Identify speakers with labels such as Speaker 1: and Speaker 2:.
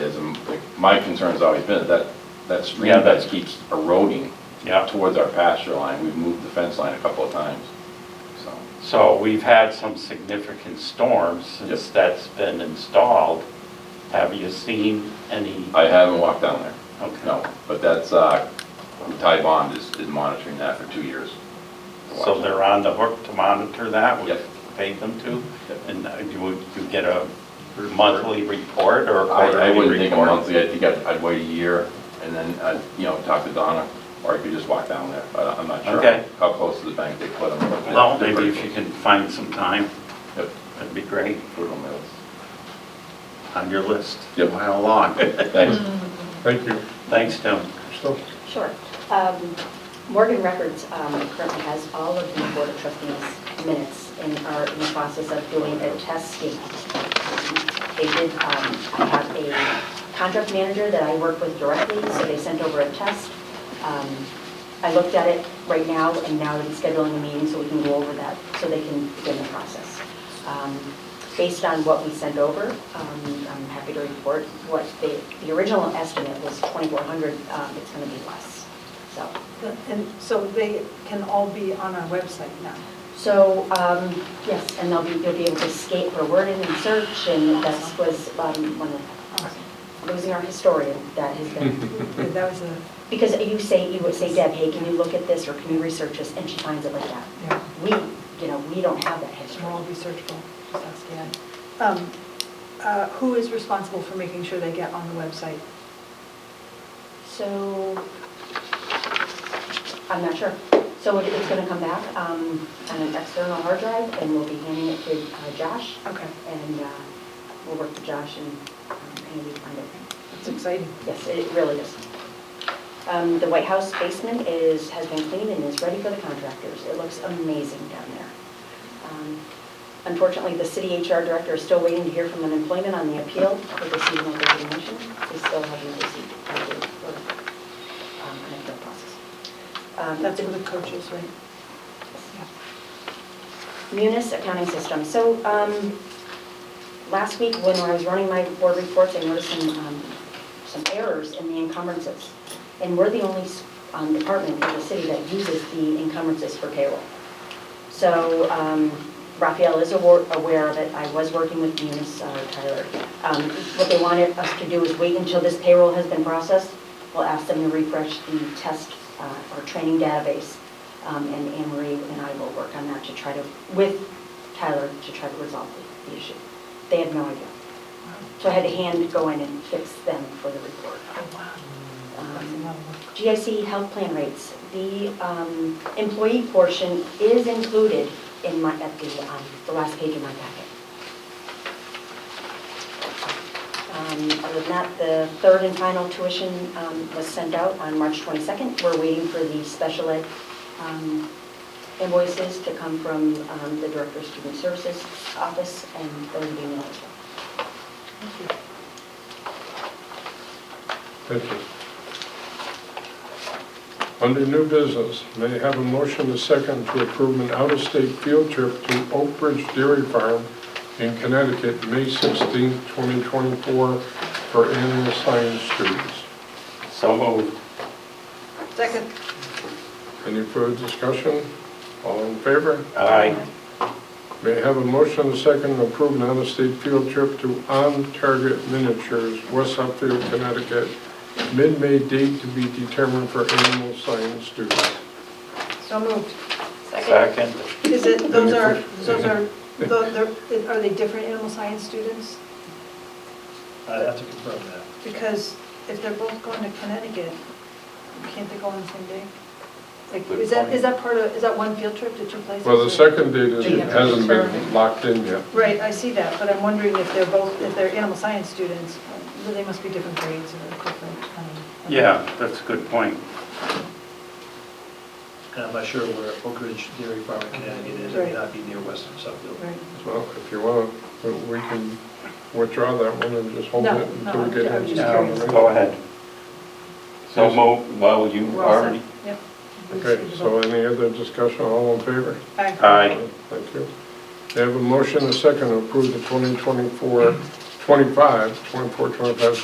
Speaker 1: my concern's always been that, that stream
Speaker 2: Yeah, that-
Speaker 1: that keeps eroding
Speaker 2: Yeah.
Speaker 1: towards our pasture line. We've moved the fence line a couple of times, so.
Speaker 2: So we've had some significant storms since that's been installed. Have you seen any?
Speaker 1: I haven't walked down there,
Speaker 2: Okay.
Speaker 1: no, but that's, uh, Ty Bond is, is monitoring that for two years.
Speaker 2: So they're on the hook to monitor that? We
Speaker 1: Yep.
Speaker 2: paid them to?
Speaker 1: Yep.
Speaker 2: And uh, you would, you get a monthly report or a
Speaker 1: I, I
Speaker 2: quarterly
Speaker 1: wouldn't think a
Speaker 2: report?
Speaker 1: monthly, I think I'd, I'd wait a year and then, I'd, you know, talk to Donna, or I could just walk down there, but I'm not sure
Speaker 2: Okay.
Speaker 1: how close to the bank they put them.
Speaker 2: Well, maybe if you can find some time,
Speaker 1: Yep,
Speaker 2: that'd be great,
Speaker 1: put them on
Speaker 2: on your list.
Speaker 1: Yep.
Speaker 2: How long?
Speaker 1: the list. Thanks.
Speaker 3: Thank you.
Speaker 2: Thanks, Tim.
Speaker 3: So,
Speaker 4: Sure. Um, Morgan Records um, currently has all of the Board of Trustees minutes and are in the process of doing a test scan. They did, um, I have a contract manager that I work with directly, so they sent over a test. Um, I looked at it right now, and now they're scheduling a meeting so we can go over that, so they can begin the process. Um, Based on what we sent over, um, I'm happy to report what the, the original estimate was 2,400, um, it's going to be less, so.
Speaker 5: And so they can all be on our website now.
Speaker 4: So, um, yes, and they'll be, you'll be able to skate for wording and search, and that was um, one of, losing our historian, that has been,
Speaker 5: Yeah, That was a,
Speaker 4: because you say, you would say, Deb, hey, can you look at this, or can you research this, and she finds it like that.
Speaker 5: yeah,
Speaker 4: We, you know, we don't have that
Speaker 5: it
Speaker 4: history.
Speaker 5: should all be searchable, just ask Ann. Um, uh, Who is responsible for making sure they get on the website?
Speaker 4: So, I'm not sure. So it- it's going to come back um, on an external hard drive, and we'll be handing it to uh, Josh,
Speaker 5: Okay,
Speaker 4: and uh, we'll work with Josh and um, Andy to find it.
Speaker 5: that's exciting.
Speaker 4: Yes, it really is. Um, The White House basement is, has been cleaned and is ready for the contractors. It looks amazing down there. Um, Unfortunately, the city HR director is still waiting to hear from unemployment on the appeal for the seasonal resignation. They still haven't received a date for um, an appeal process. Um,
Speaker 5: That's for the coaches, right? Yeah.
Speaker 4: Munis accounting system. So um, last week, when I was running my board reports, I noticed some, um, some errors in the encumbrances. And we're the only um, department in the city that uses the encumbrances for payroll. So um, Raphael is awar- aware of it. I was working with Munis, uh, Tyler. Um, What they wanted us to do is wait until this payroll has been processed. We'll ask them to refresh the test uh, or training database. Um, And Anne Marie and I will work on that to try to, with Tyler, to try to resolve the- the issue. They have no idea. So I had to hand go in and fix them for the report.
Speaker 5: Oh, wow. That's a
Speaker 4: Um,
Speaker 5: lot of work.
Speaker 4: GIC health plan rates, the um, employee portion is included in my, at the, um, the last page of my packet. Um, Other than that, the third and final tuition um, was sent out on March 22nd. We're waiting for the special ed um, invoices to come from um, the Director of Student Services Office, and those will be mailed as well.
Speaker 5: Thank you.
Speaker 3: thank you. Under new business, may I have a motion to second to approve an out-of-state field trip to Oak Ridge Dairy Farm in Connecticut, May 16, 2024, for animal science students?
Speaker 2: So moved.
Speaker 5: Second.
Speaker 3: Any further discussion? All in favor?
Speaker 2: Aye.
Speaker 3: May I have a motion and a second to approve an out-of-state field trip to On Target Miniatures, West Hatfield, Connecticut, mid-May date to be determined for animal science students.
Speaker 5: So moved.
Speaker 2: Second.
Speaker 5: Is it, those are, those are, tho- they're- are they different animal science students?
Speaker 6: I'd have to confirm that.
Speaker 5: Because if they're both going to Connecticut, can't they go on the same day? Like,
Speaker 2: Good
Speaker 5: is that,
Speaker 2: point.
Speaker 5: is that part of, is that one field trip to two places?
Speaker 3: Well, the second date
Speaker 7: Do you
Speaker 3: is-
Speaker 7: have to
Speaker 3: hasn't been
Speaker 7: determine?
Speaker 3: locked in yet.
Speaker 5: Right, I see that, but I'm wondering if they're both, if they're animal science students, then they must be different grades or equivalent. um,
Speaker 2: Yeah, that's a good point.
Speaker 6: And I'm not sure where Oak Ridge Dairy Farm in Connecticut is, it may not be near Western Suffield.
Speaker 5: Right.
Speaker 3: Well, if you want, we can withdraw that one and just hold
Speaker 5: No,
Speaker 3: it until we
Speaker 5: no,
Speaker 3: get
Speaker 5: I'm
Speaker 3: into
Speaker 5: just
Speaker 3: town.
Speaker 5: curious.
Speaker 3: right?
Speaker 2: Go ahead. So moved, well, you
Speaker 5: We're all set.
Speaker 2: already,
Speaker 5: Yep.
Speaker 3: Okay, so any other discussion, all in favor?
Speaker 5: Aye.
Speaker 2: aye.
Speaker 3: Thank you. They have a motion and a second to approve the 2024, 25, 24, 25